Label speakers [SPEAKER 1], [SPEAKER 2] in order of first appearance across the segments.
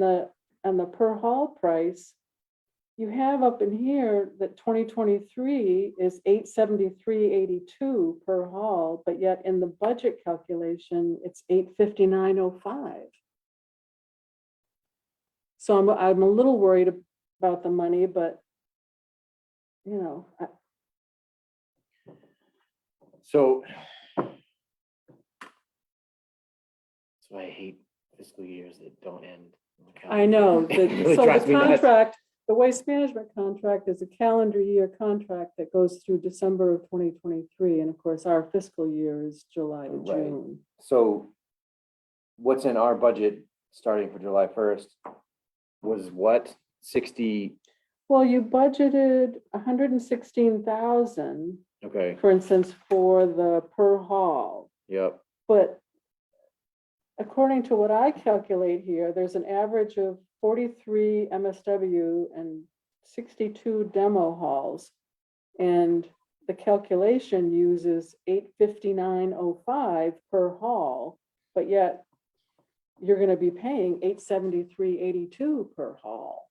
[SPEAKER 1] the, on the per haul price, you have up in here that twenty twenty-three is eight seventy-three eighty-two per haul, but yet in the budget calculation, it's eight fifty-nine oh five. So I'm, I'm a little worried about the money, but you know, I,
[SPEAKER 2] So. That's why I hate fiscal years that don't end. on the
[SPEAKER 1] I
[SPEAKER 2] calendar.
[SPEAKER 1] know,
[SPEAKER 2] It
[SPEAKER 1] that,
[SPEAKER 2] really
[SPEAKER 1] so
[SPEAKER 2] drives
[SPEAKER 1] the
[SPEAKER 2] me nuts.
[SPEAKER 1] contract, the waste management contract is a calendar year contract that goes through December of twenty twenty-three, and of course, our fiscal year is July to
[SPEAKER 2] Right.
[SPEAKER 1] June.
[SPEAKER 2] So what's in our budget starting for July first was what, sixty,
[SPEAKER 1] Well, you budgeted hundred and sixteen thousand,
[SPEAKER 2] okay,
[SPEAKER 1] for instance, for the per haul,
[SPEAKER 2] yep,
[SPEAKER 1] but according to what I calculate here, there's an average of forty-three MSW and sixty-two demo halls. And the calculation uses eight fifty-nine oh five per hall, but yet you're gonna be paying eight seventy-three eighty-two per hall.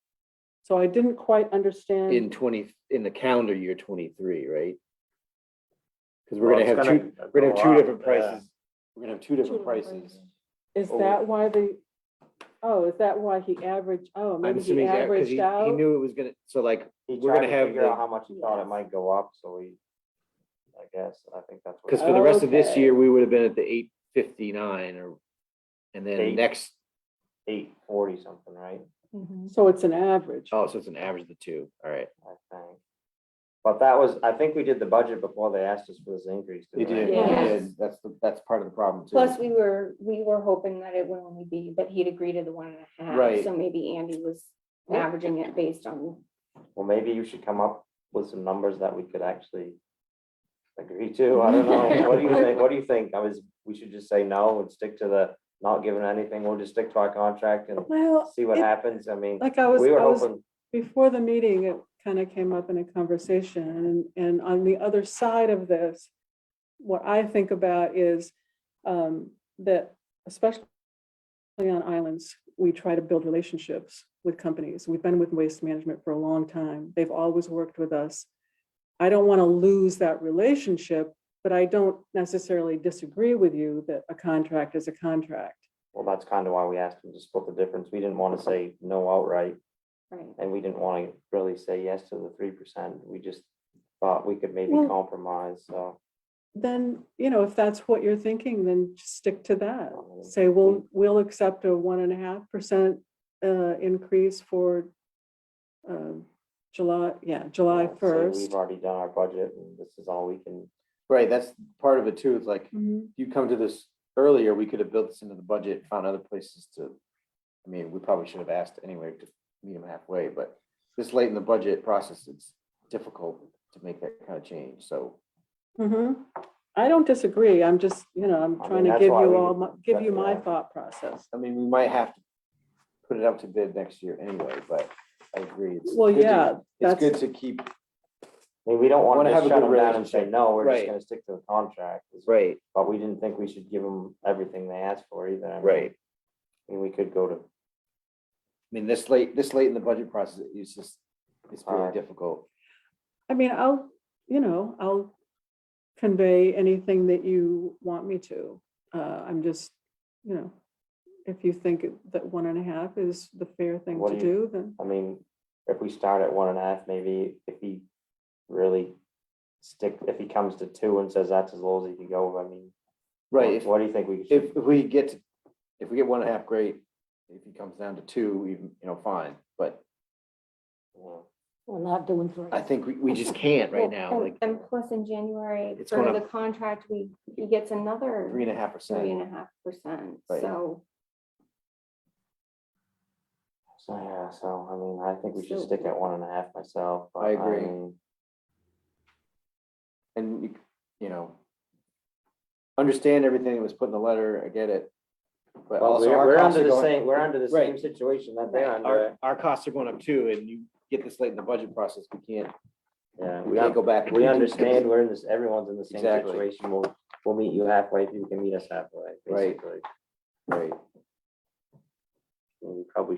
[SPEAKER 1] So I didn't quite understand.
[SPEAKER 2] in twenty, in the calendar year twenty-three, right? Because we're
[SPEAKER 3] Well,
[SPEAKER 2] gonna have
[SPEAKER 3] it's
[SPEAKER 2] two, we're gonna have two
[SPEAKER 3] go up,
[SPEAKER 2] different
[SPEAKER 3] yeah.
[SPEAKER 2] prices. We're gonna have two different
[SPEAKER 1] different
[SPEAKER 2] prices.
[SPEAKER 1] Is
[SPEAKER 2] Oh.
[SPEAKER 1] that why the, oh, is that why he averaged, oh,
[SPEAKER 2] I'm
[SPEAKER 1] maybe he
[SPEAKER 2] assuming that, because he,
[SPEAKER 1] averaged
[SPEAKER 2] he
[SPEAKER 1] out?
[SPEAKER 2] knew it was gonna, so like,
[SPEAKER 3] He
[SPEAKER 2] We're
[SPEAKER 3] tried
[SPEAKER 2] gonna
[SPEAKER 3] to
[SPEAKER 2] have
[SPEAKER 3] figure
[SPEAKER 2] the-
[SPEAKER 3] out how much he thought it
[SPEAKER 1] Yes.
[SPEAKER 3] might go up, so we, I guess, I think that's what.
[SPEAKER 2] Because for the rest of this
[SPEAKER 1] Okay.
[SPEAKER 2] year, we would have been at the eight fifty-nine or, and then
[SPEAKER 3] Eight.
[SPEAKER 2] next,
[SPEAKER 3] Eight forty something, right?
[SPEAKER 1] So it's an average.
[SPEAKER 2] oh, so it's an average of the two, all right.
[SPEAKER 3] I think. But that was, I think we did the budget before they asked us for this increase. didn't we?
[SPEAKER 4] Yeah. Yes.
[SPEAKER 2] that's, the that's part of the problem too.
[SPEAKER 4] Plus, we were, we were hoping that it would only be, but he'd agree to the one and a half.
[SPEAKER 2] Right.
[SPEAKER 4] So maybe Andy was averaging it based on,
[SPEAKER 3] Well, maybe you should come up with some numbers that we could actually agree to. I don't know. What do you think? What do you think? I was, we should just say no and stick to the, not giving anything. We'll just stick to our contract and
[SPEAKER 1] Well,
[SPEAKER 3] see what
[SPEAKER 1] it-
[SPEAKER 3] happens. I mean,
[SPEAKER 1] like I was,
[SPEAKER 3] we were
[SPEAKER 1] I was,
[SPEAKER 3] hoping,
[SPEAKER 1] before the meeting, it kind of came up in a conversation. And, and on the other side of this, what I think about is um, that especially on islands, we try to build relationships with companies. We've been with Waste Management for a long time. They've always worked with us. I don't want to lose that relationship, but I don't necessarily disagree with you that a contract is a contract.
[SPEAKER 3] well, that's kind of why we asked them to split the difference. We didn't want to say no outright.
[SPEAKER 4] right,
[SPEAKER 3] And we didn't want to really say yes to the three percent. We just thought we could maybe
[SPEAKER 1] Well-
[SPEAKER 3] compromise, so.
[SPEAKER 1] then, you know, if that's what you're thinking, then just stick to that. Say, we'll, we'll accept a one and a half percent uh, increase for um, July, yeah, July
[SPEAKER 3] say
[SPEAKER 1] first.
[SPEAKER 3] We've already done our budget and this is all we can.
[SPEAKER 2] Right, that's part of it too, it's like,
[SPEAKER 1] Mhm.
[SPEAKER 2] you come to this earlier, we could have built this into the budget, found other places to. I mean, we probably should have asked anyway to meet them halfway, but this late in the budget process, it's difficult to make that kind of change, so.
[SPEAKER 1] Mhm. I don't disagree. I'm just, you know, I'm
[SPEAKER 3] I
[SPEAKER 1] trying
[SPEAKER 3] mean,
[SPEAKER 1] to
[SPEAKER 3] that's
[SPEAKER 1] give you
[SPEAKER 3] why we-
[SPEAKER 1] all, my- give you my
[SPEAKER 3] yeah.
[SPEAKER 1] thought process.
[SPEAKER 2] I mean, we might have to put it up to bid next year anyway, but I agree. it's
[SPEAKER 1] Well,
[SPEAKER 2] good to-
[SPEAKER 1] yeah,
[SPEAKER 2] It's
[SPEAKER 1] that's-
[SPEAKER 2] good to keep.
[SPEAKER 3] I mean, we don't want
[SPEAKER 2] Wanna
[SPEAKER 3] to
[SPEAKER 2] have
[SPEAKER 3] just
[SPEAKER 2] a
[SPEAKER 3] shut
[SPEAKER 2] good
[SPEAKER 3] them down and say,
[SPEAKER 2] relationship.
[SPEAKER 3] no, we're just
[SPEAKER 2] Right.
[SPEAKER 3] gonna stick to the contract.
[SPEAKER 2] Right,
[SPEAKER 3] But we didn't think we should give them everything they asked for either. I mean,
[SPEAKER 2] right. I
[SPEAKER 3] I mean, we could go to,
[SPEAKER 2] mean, this late, this late in the budget process, it's just, it's very
[SPEAKER 3] Alright.
[SPEAKER 2] difficult.
[SPEAKER 1] I mean, I'll, you know, I'll convey anything that you want me to. Uh, I'm just, you know, if you think that one and a half is the fair thing
[SPEAKER 3] What
[SPEAKER 1] to
[SPEAKER 3] do you-
[SPEAKER 1] do, then.
[SPEAKER 3] I mean, if we start at one and a half, maybe if he really stick, if he comes to two and says that's as low as he can go, I mean. what-
[SPEAKER 2] Right, if,
[SPEAKER 3] What do you think we should?
[SPEAKER 2] if if we get, to- if we get one and a half, great. If it comes down to two, even, you know, fine, but
[SPEAKER 3] you
[SPEAKER 5] We're not doing three.
[SPEAKER 2] I think we, we just can't right now,
[SPEAKER 4] Well,
[SPEAKER 2] like
[SPEAKER 4] and- And plus in January,
[SPEAKER 2] It's
[SPEAKER 4] for
[SPEAKER 2] going
[SPEAKER 4] the
[SPEAKER 2] up-
[SPEAKER 4] contract, we, he gets another
[SPEAKER 2] three and a half
[SPEAKER 4] three
[SPEAKER 2] percent.
[SPEAKER 4] and a half percent,
[SPEAKER 2] Right.
[SPEAKER 4] so.
[SPEAKER 3] So, yeah, so, I mean, I think we should
[SPEAKER 4] So-
[SPEAKER 3] stick at one and a half myself. but
[SPEAKER 2] I agree.
[SPEAKER 3] mean,
[SPEAKER 2] And, you c- you know, understand everything that was put in the letter, I get it. But
[SPEAKER 3] But
[SPEAKER 2] also
[SPEAKER 3] we're,
[SPEAKER 2] our
[SPEAKER 3] we're
[SPEAKER 2] costs
[SPEAKER 3] under
[SPEAKER 2] are
[SPEAKER 3] the
[SPEAKER 2] going-
[SPEAKER 3] same, we're under the
[SPEAKER 2] Right.
[SPEAKER 3] same situation that
[SPEAKER 2] Right,
[SPEAKER 3] they're under.
[SPEAKER 2] Our, our costs are going up too, and you get this late in the budget process, we can't,
[SPEAKER 3] Yeah,
[SPEAKER 2] we
[SPEAKER 3] we,
[SPEAKER 2] can't
[SPEAKER 3] un-
[SPEAKER 2] go back.
[SPEAKER 3] we understand, we're in this, everyone's in the same
[SPEAKER 2] Exactly.
[SPEAKER 3] situation. We'll, we'll meet you halfway, if you can meet us halfway,
[SPEAKER 2] Right.
[SPEAKER 3] basically.
[SPEAKER 2] Right.
[SPEAKER 3] And We probably